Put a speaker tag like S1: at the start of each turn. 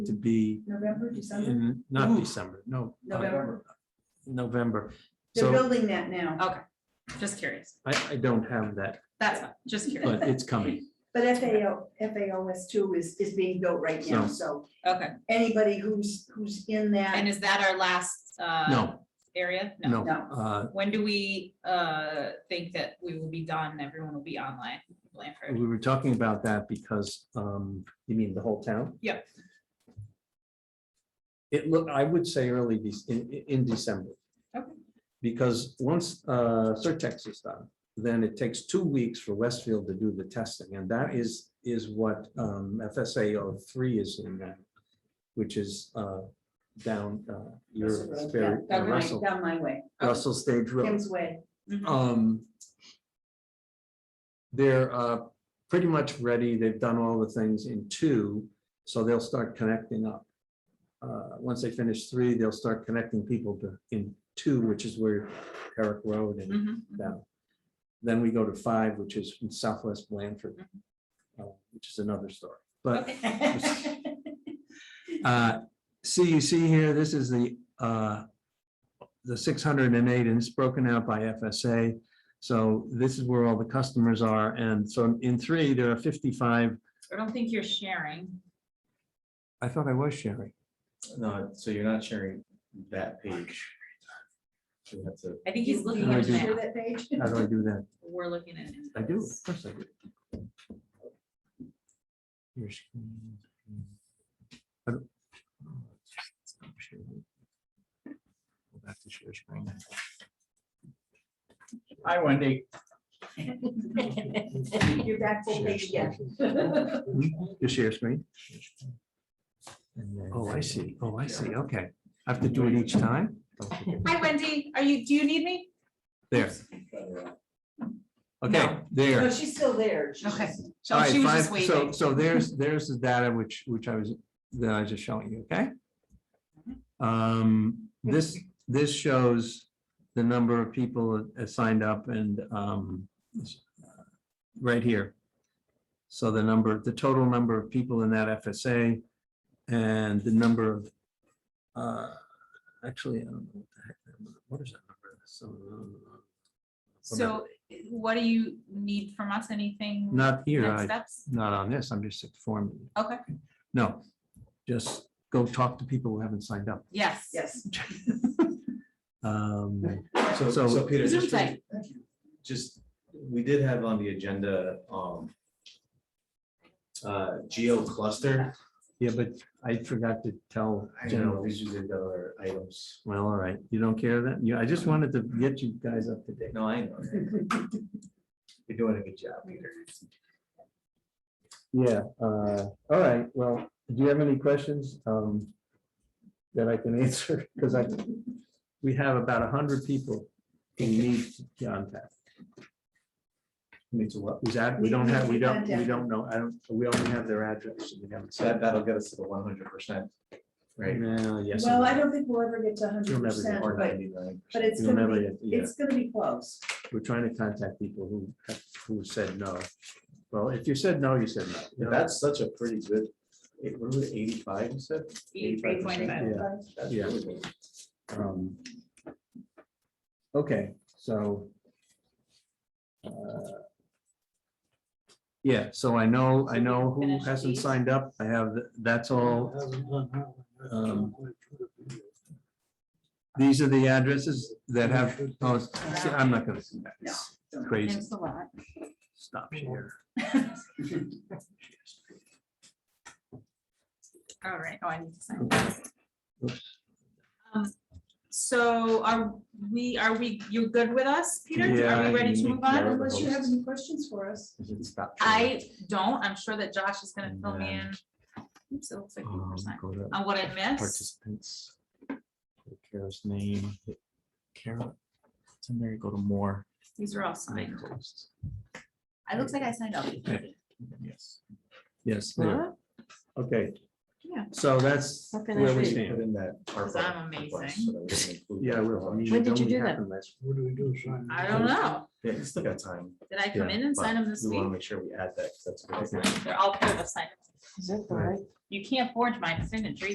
S1: to be
S2: November, December?
S1: in, not December, no. uh,
S2: November.
S1: November.
S2: They're
S1: So
S2: building that now,
S3: Just curious.
S1: I, I don't have that,
S3: That's fine. Just curious.
S1: but it's coming.
S2: but FAO, FAOS two is, is being built right now, so
S3: Okay.
S2: anybody who's, who's in
S3: And
S2: that,
S3: is that our last? uh,
S1: No,
S3: Area?
S1: no.
S2: no.
S1: uh,
S3: When do we uh think that we will be done? Everyone will be online? Blanford?
S1: We were talking about that because, um, you mean the whole town?
S3: Yeah.
S1: It look, I would say early Dec- in, in- in December.
S3: Okay.
S1: Because once, uh, Certex is done, then it takes two weeks for Westfield to do the testing, and that is, is what, um, FSA O three is in that. Which is, uh, down, uh, your,
S2: Russell Road,
S1: Barry-
S2: yeah, Down my,
S1: Russell,
S2: down my way,
S1: Russell Stage Road
S2: Kim's way,
S3: Mhm.
S1: um, they're uh, pretty much ready. They've done all the things in two, so they'll start connecting up. Uh, Once they finish three, they'll start connecting people to in two, which is where Herrick Road and
S3: Mhm.
S1: down. Then we go to five, which is in Southwest Blanford, uh, which is another story. But
S3: Okay.
S1: uh, See, you see here, this is the, uh, the six hundred and eight, and it's broken out by FSA. So this is where all the customers are, and so in three, there are fifty-five,
S3: I don't think you're sharing.
S1: I thought I was sharing.
S4: No, so you're not sharing that page. You have to,
S3: I think he's
S2: You
S3: looking
S1: Can I
S3: at
S2: wanna
S1: do-
S2: share
S3: that.
S2: that page?
S1: How do I do that?
S3: We're looking at. it.
S1: I do, of course I do. Your screen. I don't- Stop sharing. Go Back to share screen.
S4: hi Wendy.
S2: You're back full page again.
S1: Your share screen?
S4: And then-
S1: Oh, I see. Oh, I see. Okay. I have to do it each time?
S3: Hi Wendy, are you, do you need me?
S1: There.
S4: Uh,
S1: Okay,
S2: No,
S1: there.
S2: she's still there. She's
S3: Okay.
S2: just-
S3: Oh,
S1: All right,
S3: she was just
S1: fine. So,
S3: waving.
S1: so there's, there's the data which, which I was, that I was just showing you, okay? Um, this, this shows the number of people that signed up and, um, this- right here. So the number, the total number of people in that FSA and the number of, uh, actually, I don't know what the heck, that number- what is that number? So, uh,
S3: So what do you need from us? Anything?
S1: Not here,
S3: Next
S1: I
S3: steps?
S1: not on this, I'm just informing. you.
S3: Okay.
S1: No, just go talk to people who haven't signed up.
S3: Yes.
S2: Yes,
S1: Um,
S4: So,
S1: So-
S4: so Peter,
S3: Zoom
S4: just-
S3: tight.
S4: just, we did have on the agenda, um, uh, geo cluster,
S1: Yeah, but I forgot to tell
S4: I don't know,
S1: General.
S4: these are the other items.
S1: Well, all right, you don't care then? You, I just wanted to get you guys up to date.
S4: No, I know. You're doing a good job, Peter.
S1: Yeah, uh, all right, well, do you have any questions um, that I can answer? Because I, we have about a hundred people who need to contact.
S4: Needs a lot.
S1: Who's that? We don't have, we don't, we don't know. I don't, we only have their address. and we haven't
S4: So
S1: said-
S4: that, that'll get us to the one hundred percent. Right.
S1: No, yes.
S2: well, I don't think we'll ever get to hundred
S1: You'll never get
S2: percent,
S4: Or
S2: but,
S4: 99%.
S2: but it's
S1: You'll
S2: gonna
S1: never
S2: be,
S1: get- yeah.
S2: it's gonna be close.
S1: We're trying to contact people who, have- who said no. Well, if you said no, you said no. you
S4: Yeah,
S1: know?
S4: That's such a pretty good, it, what was it, eighty-five, you said?
S3: Eighty-three point five.
S1: Yeah.
S4: That's
S1: Yeah.
S4: really good.
S1: um, Okay, so. uh, Yeah, so I know, I know who
S3: Finish
S1: hasn't
S3: these.
S1: signed up. I have, th- that's all. Um, These are the addresses that have, oh, see, I'm not gonna see that. It's Crazy,
S3: Thanks a lot.
S1: stop here.
S3: All right, oh, I need to sign.
S1: Oops.
S3: Um, So are we, are we, you good with us, Peter? Are
S1: Yeah,
S3: we ready to
S1: you-
S3: move on?
S2: Unless you have any questions for us.
S4: Stop.
S3: I don't, I'm sure that Josh is gonna fill me in. Oops, it looks like
S1: Um,
S3: we were signed.
S4: Um, Go to
S3: On what I missed,
S4: Participants. Hit Kara's name. hit Kara. It's in there, you go to more.
S3: these are all signed.
S4: hosts.
S3: It looks like I signed up.
S4: Yes.
S1: Yes, there. okay.
S3: Yeah.
S1: So that's
S5: How can I
S1: where we
S5: see?
S1: stand.
S4: Put in that.
S3: Because
S4: ARPA
S3: I'm amazing.
S4: request so that we can include
S1: Yeah, I
S4: that
S1: will. I
S4: on.
S1: mean,
S5: When
S1: it
S5: did you
S1: only
S5: do that?
S1: happened last-
S6: What do we do? sign?
S3: I don't know.
S4: Yeah, you still got time.
S3: Did I come
S1: Yeah,
S3: in and sign
S4: but
S3: them this
S4: We want to
S3: week?
S4: make sure we add that. 'cause That's. a good
S3: I'll
S4: idea.
S3: sign. They're all part of the sign.
S5: Is that the
S1: Right.
S5: right
S3: You can't forge my signature